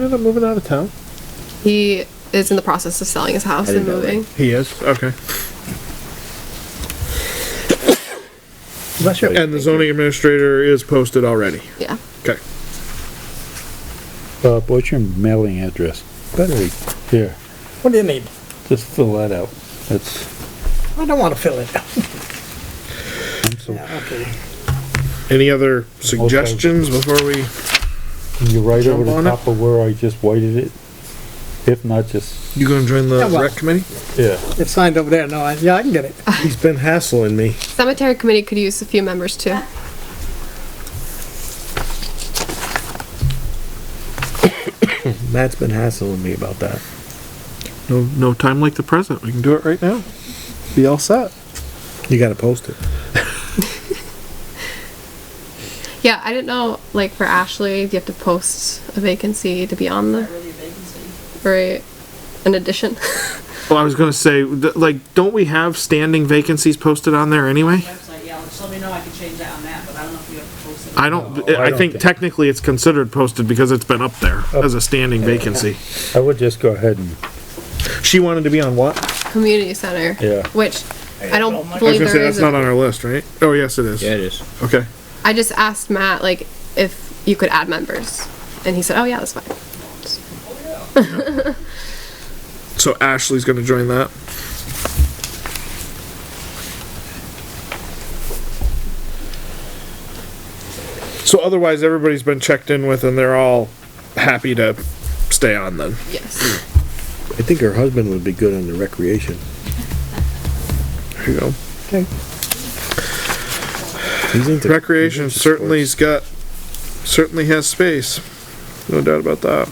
Ended up moving out of town. He is in the process of selling his house I and didn't know that. moving. He is okay. Bless you. And the zoning administrator is posted already. Yeah. Okay. Bob, what's your mailing address? Better be here. What do you need? Just fill that out. That's, I don't want to fill it out. I'm so, Okay. Any other suggestions before we? can you write Jump over the on it? top of where I just whited it? If not, just, You gonna join the Yeah, well- rec committee? yeah. It's signed over there. No, I, yeah, I can get it. He's been hassling me. Cemetery committee could use a few members too. Matt's been hassling me about that. No, no time like the present. We can do it right now. Be all set. You gotta post it. Yeah, I didn't know, like for Ashley, do you have to post a vacancy to be on the? Right, an addition? Well, I was gonna say, th- like, don't we have standing vacancies posted on there anyway? website, yeah, just let me know, I can change that on that, but I don't know if you have to post it. I don't, No, I I don't think think- technically it's considered posted because it's been up there as a standing vacancy. I would just go ahead and, She wanted to be on what? Community center. Yeah. Which, I don't I was believe gonna say, there that's is. not on a- our list, right? Oh, yes, it is. is. Okay. I just asked Matt, like, if you could add members, and he said, oh yeah, that's fine. So Ashley's gonna join that. So otherwise, everybody's been checked in with and they're all happy to stay on then. Yes. I think her husband would be good on the recreation. There you go. Okay. He's into- Recreation he's into certainly's sports. got, certainly has space. No doubt about that.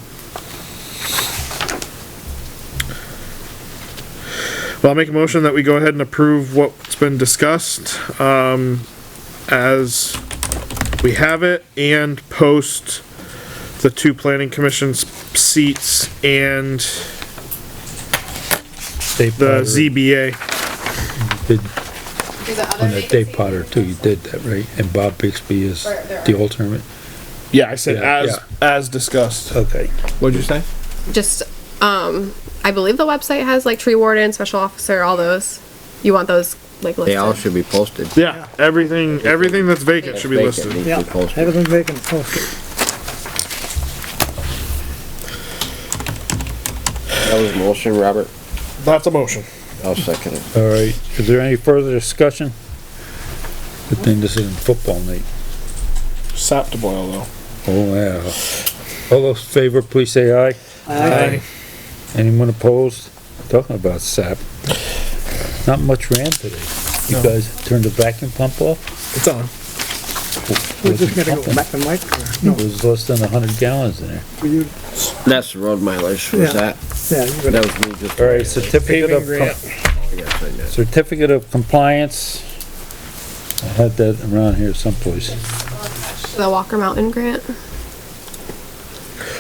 Well, I'll make a motion that we go ahead and approve what's been discussed, um, as we have it and post the two planning commission's seats and Dave the Potter, ZBA. did, Is there other on that Dave vacancies? Potter too, you did that, right? And Bob Bixby is Or there the are- alternate. Yeah, I said Yeah, as, as discussed. Okay. What'd you say? Just, um, I believe the website has like tree warden, special officer, all those. You want those, like, listed? They all should be posted. Yeah, everything, everything that's vacant should be Vacant listed. needs to be Yeah. posted. Everything vacant. Posted. That was motion, Robert. That's a motion. I'll second it. All right, is there any further discussion? Good thing this isn't football night. Sap to boil though. Oh, yeah. All those favor, please say aye. Aye. Anyone opposed? Talking about sap. Not much ran today. You guys turned the vacuum pump off? It's on. We're just gonna go back to Mike. It was less than a hundred gallons in there. For you. That's the road mileage, Yeah. was that? Yeah. You go That down. was me just. All right, certificate of, grant. com- Yes, I did. certificate of compliance. I had that around here someplace. The Walker Mountain grant?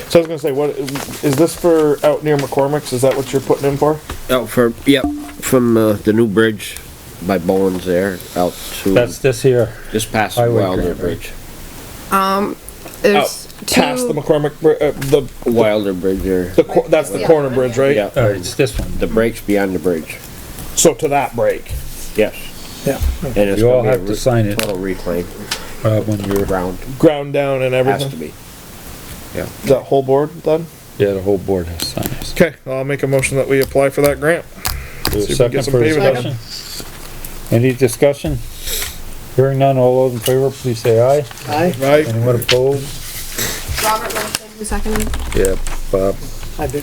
So I was gonna say, what, is this for out near McCormick's? Is that what you're putting in for? Out Oh, for, yep, from, uh, the new bridge by Bowens there, out to, That's this here. just past highway Wilder grant, right? Bridge. There's Past the two, McCormick, br- uh, the, Wilder Bridge there, the, cor- that's the Yeah. corner bridge, right? yeah, All right, it's this one. the break's beyond the bridge, So to that break. yes. Yeah. And it's You all gonna be a have to re- sign it. Total reclaim, Uh, when you're, ground, Ground down and has to everything. be. That whole board then? yeah, the whole board has to sign this. Okay, I'll make a motion that we apply for that grant. Is there a See if we Second can for get some pavement discussion? Any discussion? Hearing none, all those in favor, please say aye. Aye. Right? Anyone opposed? Robert Wilson, who seconded? Yeah, Bob. I did.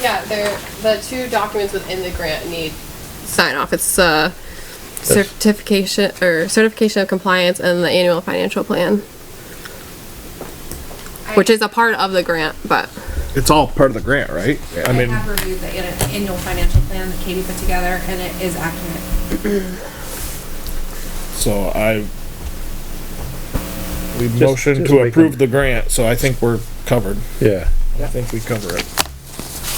Yeah, they're, the two documents within the grant need sign off. It's, uh, certification, or certification of compliance and the annual financial plan. Which is a part of the grant, but It's all part of the grant, right? I I mean, have reviewed the an- annual financial plan that Katie put together, and it is accurate. so I, we Just- motioned just to make approve them- the grant, so I think we're covered. Yeah, I think we cover it.